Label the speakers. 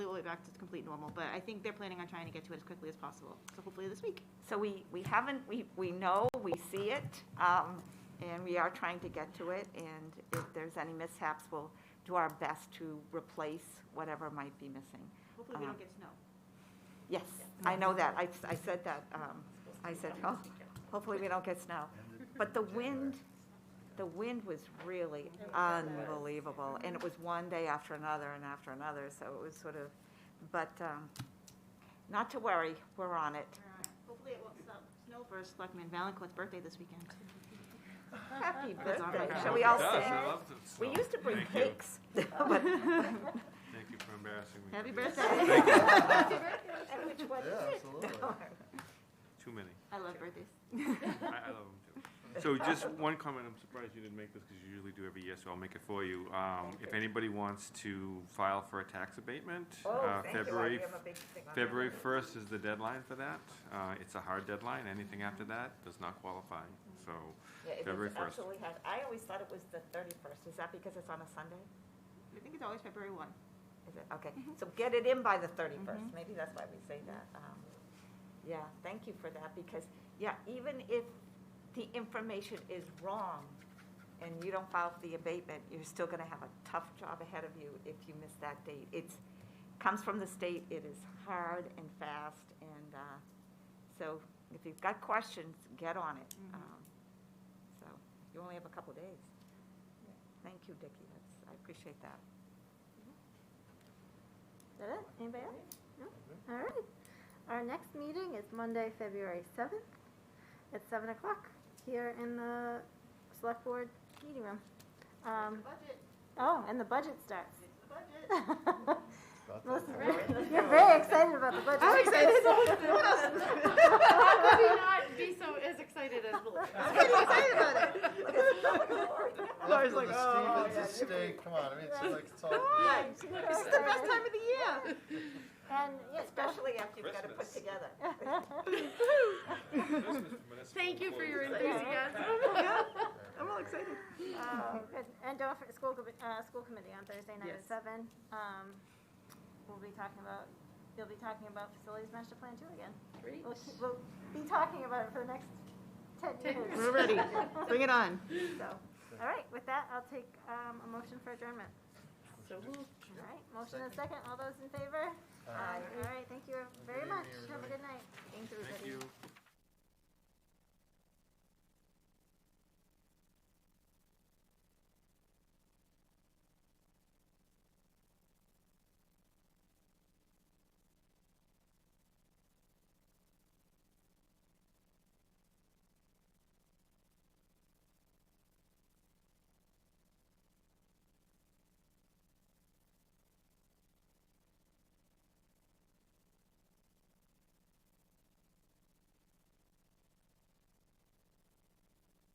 Speaker 1: back to complete normal, but I think they're planning on trying to get to it as quickly as possible, so hopefully this week.
Speaker 2: So we, we haven't, we, we know, we see it, um, and we are trying to get to it, and if there's any mishaps, we'll do our best to replace whatever might be missing.
Speaker 1: Hopefully we don't get snow.
Speaker 2: Yes, I know that, I, I said that, um, I said, oh, hopefully we don't get snow. But the wind, the wind was really unbelievable, and it was one day after another and after another, so it was sort of, but, um, not to worry, we're on it.
Speaker 1: Hopefully it won't stop snow for Selectman Valencourt's birthday this weekend.
Speaker 2: Happy
Speaker 1: That's all
Speaker 2: birthday,
Speaker 1: right.
Speaker 2: shall we all
Speaker 3: It does.
Speaker 2: sing?
Speaker 3: I love the
Speaker 2: We
Speaker 3: song.
Speaker 2: used to bring
Speaker 3: Thank you.
Speaker 2: cakes, Oh, but,
Speaker 3: Thank you for embarrassing me.
Speaker 1: Happy
Speaker 3: today.
Speaker 1: birthday.
Speaker 3: Thank you.
Speaker 2: and which one
Speaker 4: Yeah,
Speaker 2: is
Speaker 4: absolutely.
Speaker 2: it?
Speaker 3: Too many.
Speaker 1: I love birthdays.
Speaker 3: I, I love them too. So just one comment, I'm surprised you didn't make this because you usually do every year, so I'll make it for you. Um, if anybody wants to file for a tax abatement,
Speaker 2: Oh,
Speaker 3: uh, February, February first is the deadline for that. Uh, it's a hard deadline. Anything after that does not qualify, so. February 1st.
Speaker 2: Absolutely has, I always thought it was the thirty-first, is that because it's on a Sunday?
Speaker 1: I think it's always February one.
Speaker 2: Is it, okay, so get it in by the thirty-first, maybe that's why we say that. Um, Yeah, thank you for that, because, yeah, even if the information is wrong and you don't file for the abatement, you're still gonna have a tough job ahead of you if you miss that date. It's, comes from the state, it is hard and fast, and, uh, so if you've got questions, get on it.
Speaker 1: Mhm.
Speaker 5: Mm-hmm.
Speaker 2: Um, So, you only have a couple days. Thank you, Dickie, that's, I appreciate that.
Speaker 5: Mm-hmm. Is that it? Anybody else? No? All right. Our next meeting is Monday, February 7th at 7 o'clock here in the Select Board Meeting Room. Um,
Speaker 1: Budget,
Speaker 5: Oh, and the budget starts.
Speaker 1: the budget.
Speaker 4: Got that.
Speaker 5: Melissa, you're very excited about the budget.
Speaker 1: I'm excited.
Speaker 6: How could we not be so as excited as
Speaker 1: I'm pretty excited about it.
Speaker 4: After the Stevens estate, come on, I mean, it's like, it's all.
Speaker 1: This is the best time of the year.
Speaker 5: And, yeah,
Speaker 2: Especially after you've got to put
Speaker 3: Christmas.
Speaker 2: together.
Speaker 5: Um,
Speaker 6: Thank you for your enthusiasm.
Speaker 5: enthusiasm.
Speaker 1: I'm all excited.
Speaker 5: Oh, good. And don't forget, school, commi- uh, school committee on Thursday night at
Speaker 1: Yes.
Speaker 5: seven. Um, we'll be talking about, you'll be talking about facilities master plan two again. We'll, keep- we'll be talking about it for the next ten
Speaker 6: Ten
Speaker 5: years.
Speaker 1: We're ready. Bring it on.
Speaker 5: So, all right, with that, I'll take, um, a motion for adjournment.
Speaker 6: So who
Speaker 5: All right, motion and second, all those in favor?
Speaker 4: Aye.
Speaker 5: All right, thank you very
Speaker 4: Good
Speaker 5: much.
Speaker 4: evening,
Speaker 5: Have a good
Speaker 4: everybody.
Speaker 5: night. Thank you,
Speaker 3: Thank you.